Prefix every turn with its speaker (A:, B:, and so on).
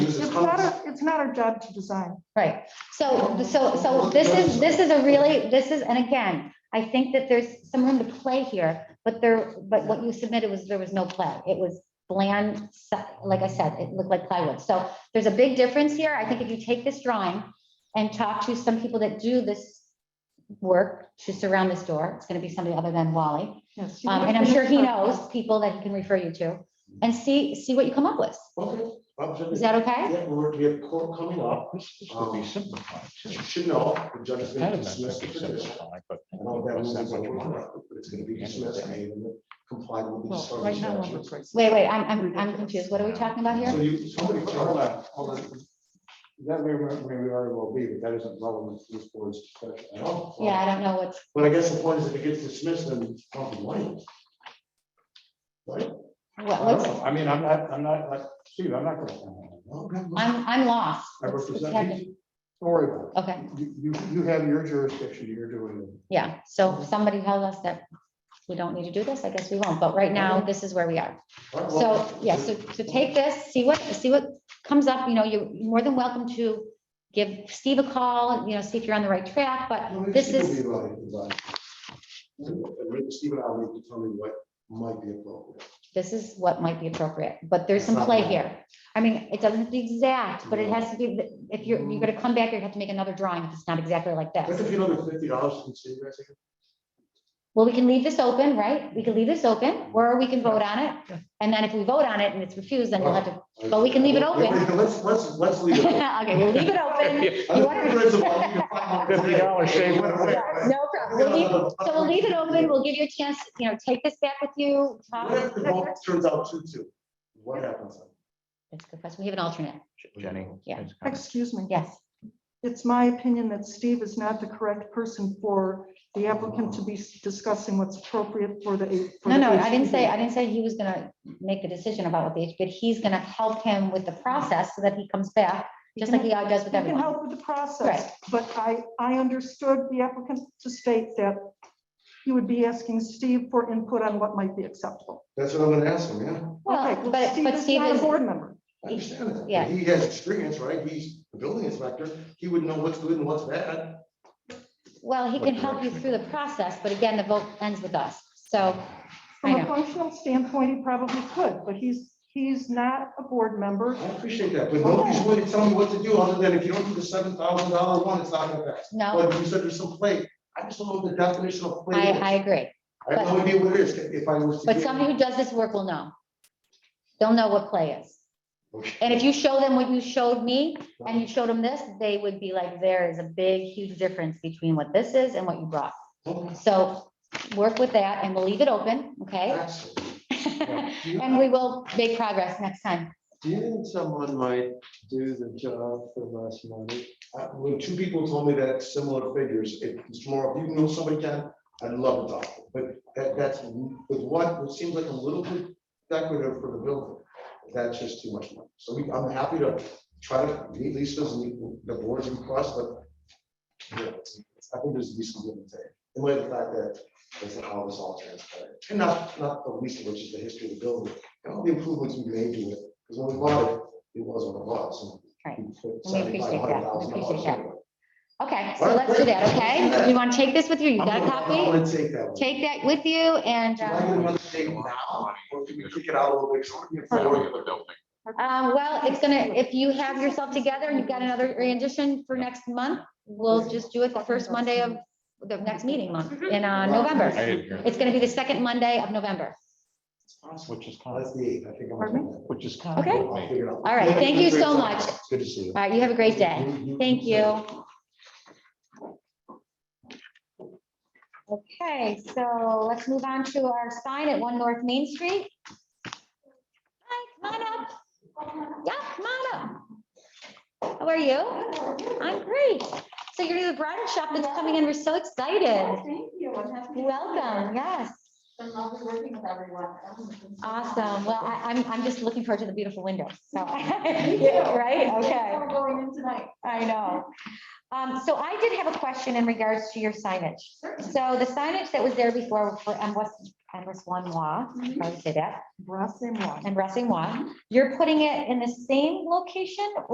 A: it's not, our- it's not our job to design.
B: Right, so, so, so this is, this is a really, this is, and again, I think that there's some room to play here, but there, but what you submitted was, there was no play. It was bland, so- like I said, it looked like plywood. So there's a big difference here. I think if you take this drawing and talk to some people that do this work to surround this door, it's gonna be somebody other than Wally.
A: Yes.
B: Um, and I'm sure he knows people that he can refer you to and see, see what you come up with.
C: Okay, absolutely.
B: Is that okay?
C: Yeah, we're, we have court coming up.
D: This this could be simplified too.
C: You should know, the judge is
D: It's Oh.
C: gonna
D: kind of meant
C: dismiss
D: to
C: the
D: be
C: petition.
D: simplified, but.
C: I know that was
D: that's
C: what
D: what
C: you
D: you
C: want,
D: want.
C: but it's gonna be dismissed, made and complied with the.
A: Well, right now,
C: statute.
A: we're crazy.
B: Wait, wait, I'm, I'm, I'm confused. What are we talking about
C: So
B: here?
C: you, somebody, hold on, hold on. That may, may very well be, but that isn't relevant to this board's discussion at all.
B: Yeah, I don't know what's.
C: But I guess the point is if it gets dismissed, then it's probably late. Right?
B: What,
C: I don't
B: what's,
C: know.
D: I mean, I'm not, I'm not, like, Steve, I'm not gonna. comment on
C: Okay, well,
B: I'm, I'm lost.
C: Oh. I
B: What's- what's
C: represent
B: happening?
C: you. Don't worry about
B: Okay,
C: it. You, you, you have your jurisdiction, you're doing it.
B: yeah, so somebody told us that we don't need to do this, I guess we won't, but right now, this is where we are.
C: All right, well,
B: So, yeah, so, so take this, see what, see what comes up, you know, you're more than welcome to give Steve a call, you know, see if you're on the right track,
C: Well, we
B: but this
C: should
B: is,
C: be right, right. And maybe Steve and I will determine what might be appropriate.
B: this is what might be appropriate, but there's some play here. I mean, it doesn't have to be exact, but it has to be, if you're, you're gonna come back, you have to make another drawing, if it's not exactly like this.
C: That's if you know the fifty dollars from Steve, I think.
B: Well, we can leave this open, right? We can leave this open, or we can vote on it. And then if we vote on it and it's refused, then we'll have to, But we can leave it open.
C: Yeah, Let's, let's, let's leave it. open.
B: okay, we'll leave it open.
D: it.
C: I
B: You
C: don't
B: wanna-
C: think there's a lot you can find out today.
D: $50
C: Wait,
D: shave.
C: wait, wait.
B: No problem. We'll leave- So we'll leave it open. We'll give you a chance, you know, take this back with you. talk-
C: What if the vote turns out two two? What happens? then?
B: That's a good question. We have an alternate.
D: Jenny.
B: Yeah.
D: it's kind of-
A: Excuse me.
B: Yes.
A: It's my opinion that Steve is not the correct person for the applicant to be discussing what's appropriate for the. for
B: No,
A: the
B: no, I didn't say, I
A: HPD.
B: didn't say he was gonna make a decision about what the HB, he's gonna help him with the process so that he comes back, just like he
A: You
B: does with
A: can
B: everyone.
A: help with the process, but I, I understood the applicant to state that he would be asking Steve for input on what might be acceptable.
C: That's what I'm gonna ask him, yeah.
B: Well,
A: Okay, well,
B: but- but
A: is
B: Steve
A: not a
B: is-
A: Board member.
C: I understand that.
B: Yeah.
C: He has experience, right? He's the building inspector. He would know what's good and what's bad.
B: Well, he can help you through the process, but again, the vote ends with us. So I
A: From a
B: know.
A: functional standpoint, he probably could, but he's, he's not a board member.
C: I appreciate that, but nobody's willing to tell me what to do other than if you don't do the seven thousand dollar one, it's not gonna pass.
B: no,
C: But you said there's some play. I just don't know the definition of play.
B: I,
C: is.
B: I agree.
C: I have no idea what it is if I was. to
B: But
C: get-
B: somebody who does this work will know. They'll know what play is.
C: Okay.
B: And if you show them what you showed me and you showed them this, they would be like, there is a big, huge difference between what this is and what you brought.
C: Okay.
B: So work with that and we'll leave it open, okay?
C: Excellent.
B: And we will make progress next time.
E: Do you think someone might do the job for less money?
C: Uh, When two people told me that similar figures, if it's more, if you know somebody can, I'd love to talk, to them. but that, that's with what, what seems like a little bit decorative for the building. That's just too much money. So we, I'm happy to try to meet Lisa's and the boards and cross, but yeah, I think there's a decent give and take. In light of the fact that that's how this all transpired. And not, not the least of which is the history of the building and all the improvements we made to it, because when we bought it, it was what it was. and
B: Right.
C: we put
B: And we appreciate that. We
C: $75,000
B: appreciate that.
C: into it.
B: Okay, so let's do that, okay? You want to take this with you? You got a
C: I'm
B: copy?
C: gonna take that one.
B: Take that with you and,
C: Do I get
B: um,
C: another day now, or can we kick it out a little bit? 'Cause I wanna get forward.
B: um, well, it's gonna, if you have yourself together and you've got another rendition for next month, we'll just do it the first Monday of the next meeting month in, uh, November.
D: I didn't hear.
B: It's gonna be the second Monday of November.
D: Which is kind
C: That's
D: of,
C: the eighth, I think. I'm
A: Pardon
C: gonna-
D: which is kind of.
B: Okay.
C: I'll figure it out.
B: All right, thank you so much.
C: It's Good to see you.
B: All right, you have a great day. Thank you. Okay, so let's move on to our sign at One North Main Street. Hi, come on up. Yeah, come on up. How are you? I'm great. So you're the bridal shop that's coming in. We're so excited.
F: Thank you. I'm happy to be
B: Welcome,
F: here.
B: yes.
F: Been lovely working with everyone.
B: Awesome. Well, I, I'm, I'm just looking forward to the beautiful windows, so.
F: Me too.
B: Right, okay.
F: We're going in tonight.
B: I know. Um, so I did have a question in regards to your signage. So the signage that was there before for M West, M West One Wa,
F: Mm-hmm.
B: I would say that,
A: Brass and wine.
B: and Racing Wa, you're putting it in the same location